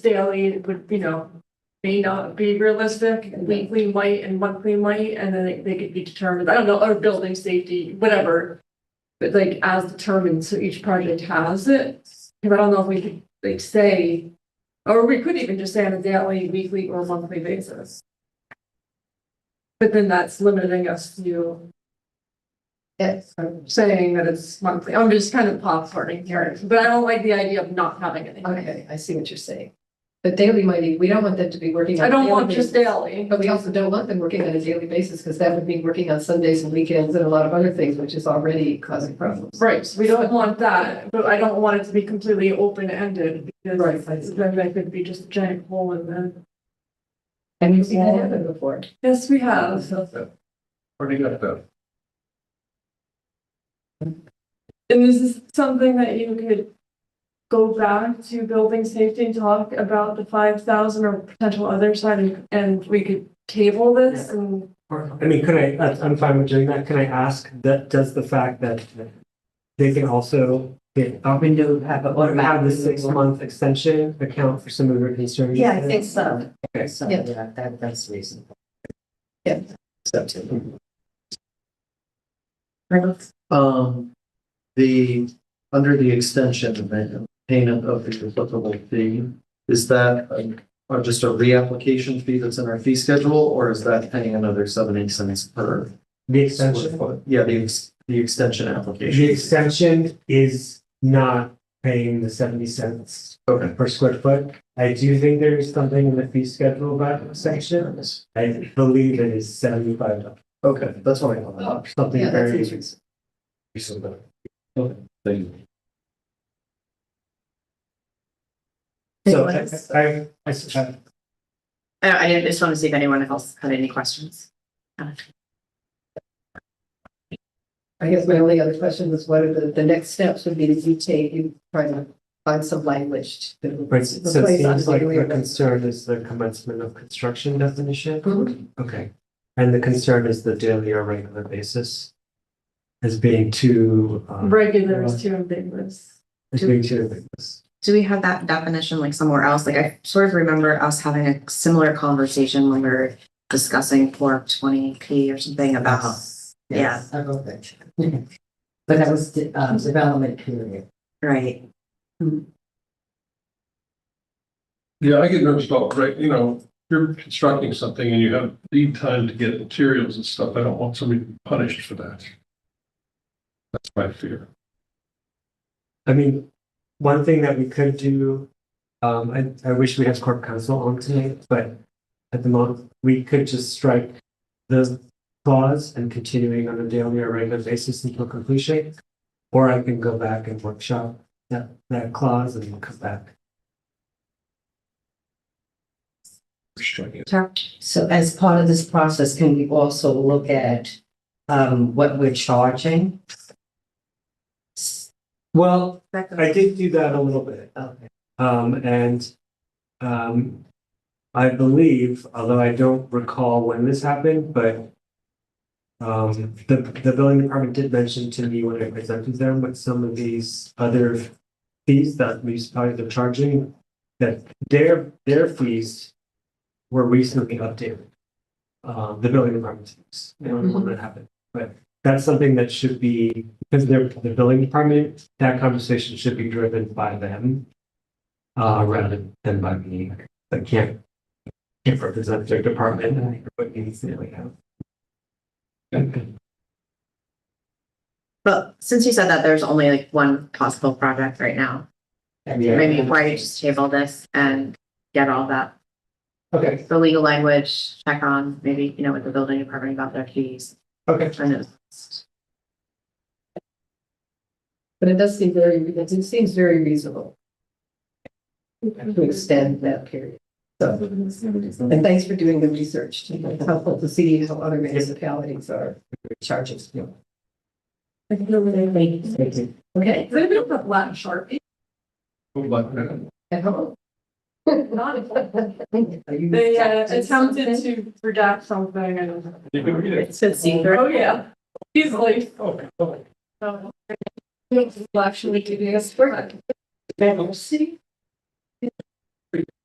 daily would, you know, may not be realistic, weekly might and monthly might, and then they- they could be determined, I don't know, or building safety, whatever. But like as determined, so each project has it, 'Cause I don't know if we could like say, or we could even just say on a daily, weekly or monthly basis. But then that's limiting us to Yes. saying that it's monthly, I'm just kind of popcorning here, but I don't like the idea of not having anything. Okay, I see what you're saying. But daily might be, we don't want them to be working on. I a don't daily want just basis. daily. But we also don't want them working on a daily basis because that would mean working on Sundays and weekends and a lot of other things, which is already causing problems. Right, so we don't want that, but I don't want it to be completely open-ended because Right. then that could be just a giant hole in the. And we've seen that happen before. Yes, we have. Pretty good though. And this is something that you could go back to building safety and talk about the five thousand or potential other side and, and we could table this and. I mean, could I, that's- I'm fine with doing that. Can I ask that, does the fact that they can also get, um, window have have an the automatic. six month extension account for some of your concerns? Yeah, I think so. Okay. So, Yeah. yeah, that, that's reasonable. Um, the, under the extension of the payment of the applicable fee, is that um, or just a reapplication fee that's in our fee schedule, or is that paying another seventy cents per? The square extension, foot? Yeah, the, ex- the extension application. the extension is not paying the seventy cents Okay. per square foot. I do think there is something in the fee schedule about section. I believe it is seventy five dollars, Okay, that's what I thought. something Oh, Yeah, that's very. interesting. reasonable. Thank you. So Anyone I, else? I, I suggest. I, I just want to see if anyone else had any questions. I guess my only other question was what are the, the next steps would be that you take, you try to find some language. to Right, so it replace seems like unduly the restrictive. concern is the commencement of construction definition? Mhm. Okay, and the concern is the daily or regular basis? As being too, um, Regulars too ambiguous. as being too ambiguous. Do we have that definition like somewhere else? Like I sort of remember us having a similar conversation when we were discussing four twenty P or something Ah. Uh-huh. about. Yeah, I wrote that. But that was the uh, um, development period. right. Yeah, I get nervous about, right, you know, if you're constructing something and you have lead time to get materials and stuff. I don't want somebody to be punished for that. That's my fear. I mean, one thing that we could do, um, I, I wish we had corp counsel on tonight, but at the moment, we could just strike the clause and continuing on a daily or regular basis until completion. Or I can go back and workshop that, that clause and we'll come back. Striking. So as part of this process, can we also look at um, what we're charging? Well, That goes- I did do that a little bit, Okay. um, and, um, I believe, although I don't recall when this happened, but um, the, the building department did mention to me when I presented them with some of these other fees that municipalities are charging, that their, their fees were recently updated. Uh, the building department's fees, I don't know when that happened, but that's something that should be, because they're, the building department that conversation should be driven by them. Uh, rather than by me, I can't. Can't represent their department, and what needs to really have. But since you said that, there's only like one possible project right now. Yeah. Maybe why don't you just table this and get all that Okay, the legal language, check on maybe, you know, with the building department about their fees. okay. And it's- But it does seem very, it it seems very reasonable to extend that period. And thanks for doing the research. too. It's helpful to see how other municipalities are charging. Okay, Does anybody have a black Sharpie? Like that. at home. They uh, attempted to redact something and, You can read it. It's a secret. oh yeah, easily. Okay, okay. So, uh, We'll Actually, do this work.